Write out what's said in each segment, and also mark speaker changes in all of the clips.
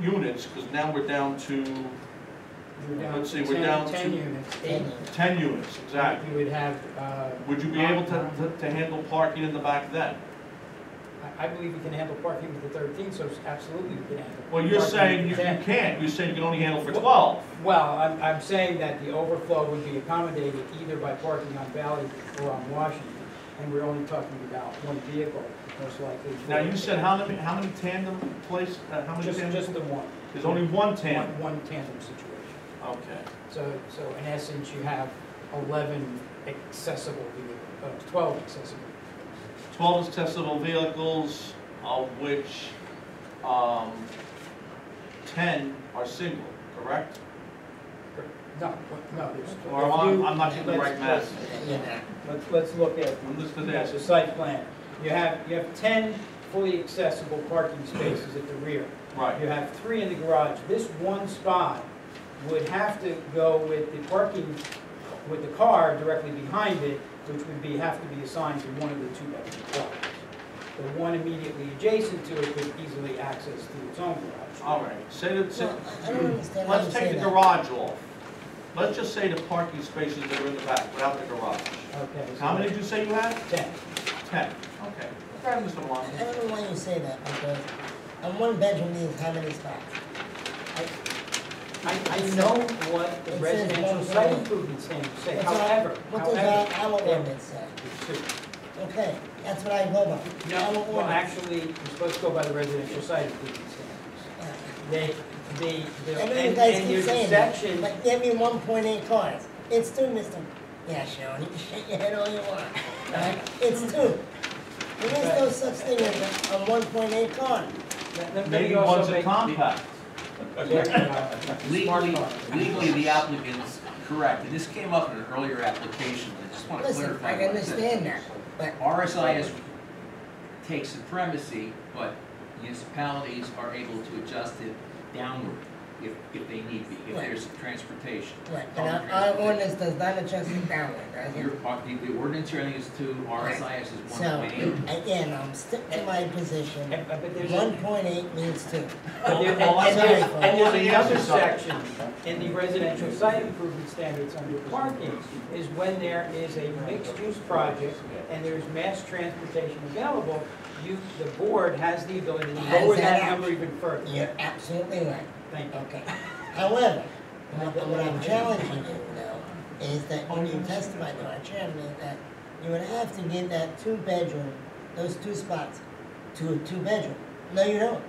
Speaker 1: units, because now we're down to
Speaker 2: We're down
Speaker 1: Let's see,
Speaker 2: to
Speaker 1: we're
Speaker 2: 10
Speaker 1: down
Speaker 2: Ten
Speaker 1: to-
Speaker 2: units.
Speaker 3: Ten
Speaker 2: Eight.
Speaker 3: units.
Speaker 1: ten units, exactly.
Speaker 2: You would have, uh,
Speaker 1: Would you be able to, to- to handle parking in the back then?
Speaker 2: I, I believe we can handle parking with the thirteen, so absolutely we can handle.
Speaker 1: Well, you're
Speaker 2: parking
Speaker 1: saying you
Speaker 2: with
Speaker 1: you
Speaker 2: 10.
Speaker 1: can't, you're saying you can only handle for twelve.
Speaker 2: Well, I'm, I'm saying that the overflow would be accommodated either by parking on Valley or on Washington, and we're only talking about one vehicle, most likely.
Speaker 1: Now, you said how many, how many tandem place, uh, how many
Speaker 2: Just,
Speaker 1: tandem?
Speaker 2: just the one.
Speaker 1: There's only one tandem,
Speaker 2: One, one tandem situation.
Speaker 1: okay.
Speaker 2: So, so in essence, you have eleven accessible vehicles, uh, twelve accessible.
Speaker 1: Twelve accessible vehicles, of which, um, ten are single, correct?
Speaker 2: No, no, there's.
Speaker 1: Or am I-
Speaker 2: if you-
Speaker 1: I'm not getting the right
Speaker 2: let's-
Speaker 1: math.
Speaker 3: Yeah.
Speaker 2: Let's, let's look at
Speaker 1: I'm just gonna
Speaker 2: That's
Speaker 1: ask,
Speaker 2: the site plan. You have, you have 10 fully accessible parking spaces at the rear.
Speaker 1: right,
Speaker 2: You have three in the garage. This one spot would have to go with the parking, with the car directly behind it, which would be, have to be assigned to one of the two bedroom garages. The one immediately adjacent to it could easily access to its own garage.
Speaker 1: all right. Say that, say-
Speaker 3: No, I- I don't understand how you
Speaker 1: let's take
Speaker 3: say
Speaker 1: the
Speaker 3: that.
Speaker 1: garage off. Let's just say the parking spaces that are in the back without the garage.
Speaker 2: Okay. so
Speaker 1: How many did you say you had?
Speaker 2: 10.
Speaker 1: Ten, okay. Okay, Mr.
Speaker 3: I
Speaker 1: Maloney.
Speaker 3: don't know why you say that, because a one bedroom means how many spots?
Speaker 2: I, I know what the
Speaker 3: It says
Speaker 2: residential
Speaker 3: one
Speaker 2: site
Speaker 3: bedroom.
Speaker 2: improvement standards say,
Speaker 3: What's our-
Speaker 2: however,
Speaker 3: What does
Speaker 2: however.
Speaker 3: our, our ordinance say?
Speaker 2: it's two.
Speaker 3: Okay, that's what I go by. Our
Speaker 2: No, well,
Speaker 3: ordinance.
Speaker 2: actually, you're supposed to go by the residential site improvement standards.
Speaker 3: Yeah.
Speaker 2: They, they,
Speaker 3: I
Speaker 2: they're-
Speaker 3: know you
Speaker 2: and,
Speaker 3: guys
Speaker 2: and
Speaker 3: keep
Speaker 2: there's a
Speaker 3: saying that,
Speaker 2: section,
Speaker 3: but give me one point eight cars. It's two, Mr. Yeah, Sharon, you can shake your head all you want,
Speaker 2: uh,
Speaker 3: right? It's two. There is no such thing as a, a one point eight car.
Speaker 2: let- let me
Speaker 1: Maybe
Speaker 2: also
Speaker 1: one's a
Speaker 2: make.
Speaker 1: compact.
Speaker 2: There you go.
Speaker 4: Legally,
Speaker 2: Smart car.
Speaker 4: legally, the applicant's correct, and this came up in an earlier application, I just want to
Speaker 3: Listen,
Speaker 4: clarify.
Speaker 3: I
Speaker 4: what it
Speaker 3: understand that,
Speaker 4: says.
Speaker 3: but
Speaker 4: RSIS takes supremacy, but municipalities are able to adjust it downward if, if they need be, if
Speaker 3: Right.
Speaker 4: there's transportation.
Speaker 3: Right, and
Speaker 4: public
Speaker 3: our, our
Speaker 4: transportation.
Speaker 3: ordinance does not adjust it downward, does
Speaker 4: Your,
Speaker 3: it?
Speaker 4: uh, the, the ordinance you're is to RSIS is one
Speaker 3: So,
Speaker 4: point eight.
Speaker 3: again, I'm stick to my position,
Speaker 2: And- But there's,
Speaker 3: one
Speaker 2: a-
Speaker 3: point eight means two.
Speaker 2: but there- and-
Speaker 1: All I'm
Speaker 2: and there's,
Speaker 3: saying-
Speaker 2: and
Speaker 1: all the
Speaker 2: there's another
Speaker 1: answers are-
Speaker 2: section in the residential site improvement standards under parking is when there is a mixed-use project and there's mass transportation available, you, the board has the ability to
Speaker 3: Hands
Speaker 2: lower
Speaker 3: that
Speaker 2: that
Speaker 3: out.
Speaker 2: number even further.
Speaker 3: You're absolutely right,
Speaker 2: Thank you.
Speaker 3: okay. However, what what I'm challenging you now is that when you testified to our chairman that you would have to give that two-bedroom, those two spots, to a two-bedroom. No, you don't.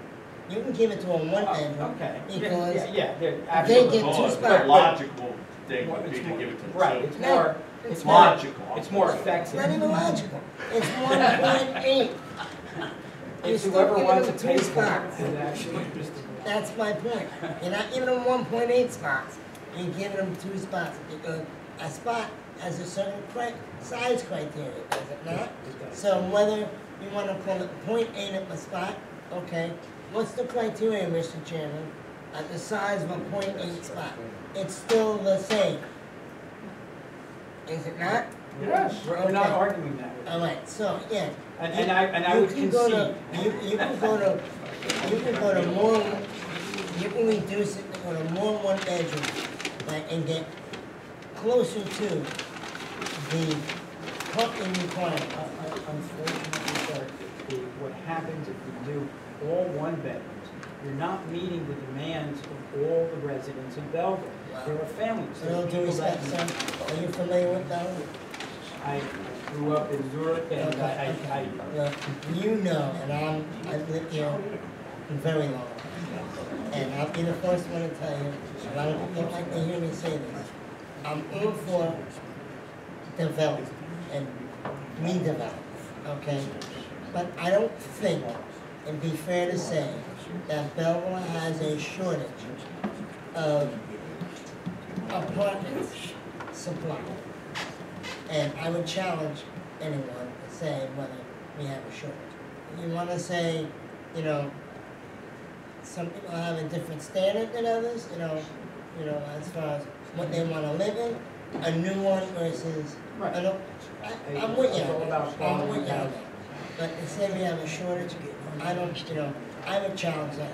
Speaker 3: You can give it to a
Speaker 2: Oh,
Speaker 3: one-bedroom.
Speaker 2: Okay. Yeah,
Speaker 3: Because
Speaker 2: yeah, Yeah, they're
Speaker 3: They
Speaker 2: absolutely.
Speaker 3: get two
Speaker 1: Oh, the
Speaker 3: spots.
Speaker 1: Logical thing
Speaker 2: Well,
Speaker 1: would be
Speaker 2: it's
Speaker 1: to
Speaker 2: more-
Speaker 1: give it to them.
Speaker 2: Right, it's more, it's
Speaker 1: It's
Speaker 2: more,
Speaker 1: logical.
Speaker 2: it's more
Speaker 3: It's
Speaker 2: effective.
Speaker 3: not even logical. It's one point eight. You're
Speaker 2: It's
Speaker 3: still
Speaker 2: whoever
Speaker 3: giving
Speaker 2: wants to
Speaker 3: them
Speaker 2: pay
Speaker 3: two
Speaker 2: for
Speaker 3: spots.
Speaker 2: it. Actually,
Speaker 3: That's my point. You're not giving them one point eight spots. You're giving them two spots because a spot has a certain cri- size criteria, does it not? So whether you wanna call it point eight of a spot, okay, what's the criteria, Mr. Chairman? At the size of a point eight spot, it's still the same. Is it not?
Speaker 1: Yes.
Speaker 2: We're we're not arguing that. with you.
Speaker 3: Alright, so, yeah,
Speaker 2: And, and I, and I
Speaker 3: Uh, you
Speaker 2: would
Speaker 3: can go
Speaker 2: concede.
Speaker 3: to You, you can go to, you can go to more, you can reduce it to a more one bedroom, like, and get closer to the parking
Speaker 2: Uh,
Speaker 3: requirement.
Speaker 2: uh, Unfortunately, sir, the- what happens if you do all one bedrooms, you're not meeting the demands of all the residents in Belleville. There are families,
Speaker 3: So
Speaker 2: there are
Speaker 3: no due
Speaker 2: people that.
Speaker 3: respect, sir, are you familiar with that?
Speaker 2: I grew up in Newark and I, I, I
Speaker 3: Well, you know, and I'm, I've lived here very long. And I'll be the first one to tell you, and I don't don't like to hear me say this. I'm all for development and redevelopment, okay? But I don't think it'd be fair to say that Belleville has a shortage of apartments supply. And I would challenge anyone to say whether we have a shortage. You wanna say, you know, some people have a different standard than others, you know, you know, as far as what they wanna live in, a new one versus,
Speaker 2: Right.
Speaker 3: I don't, I, I'm with you,
Speaker 2: It's all about
Speaker 3: I'm with you.
Speaker 2: quality.
Speaker 3: But to say we have a shortage, I don't, you know, I would challenge that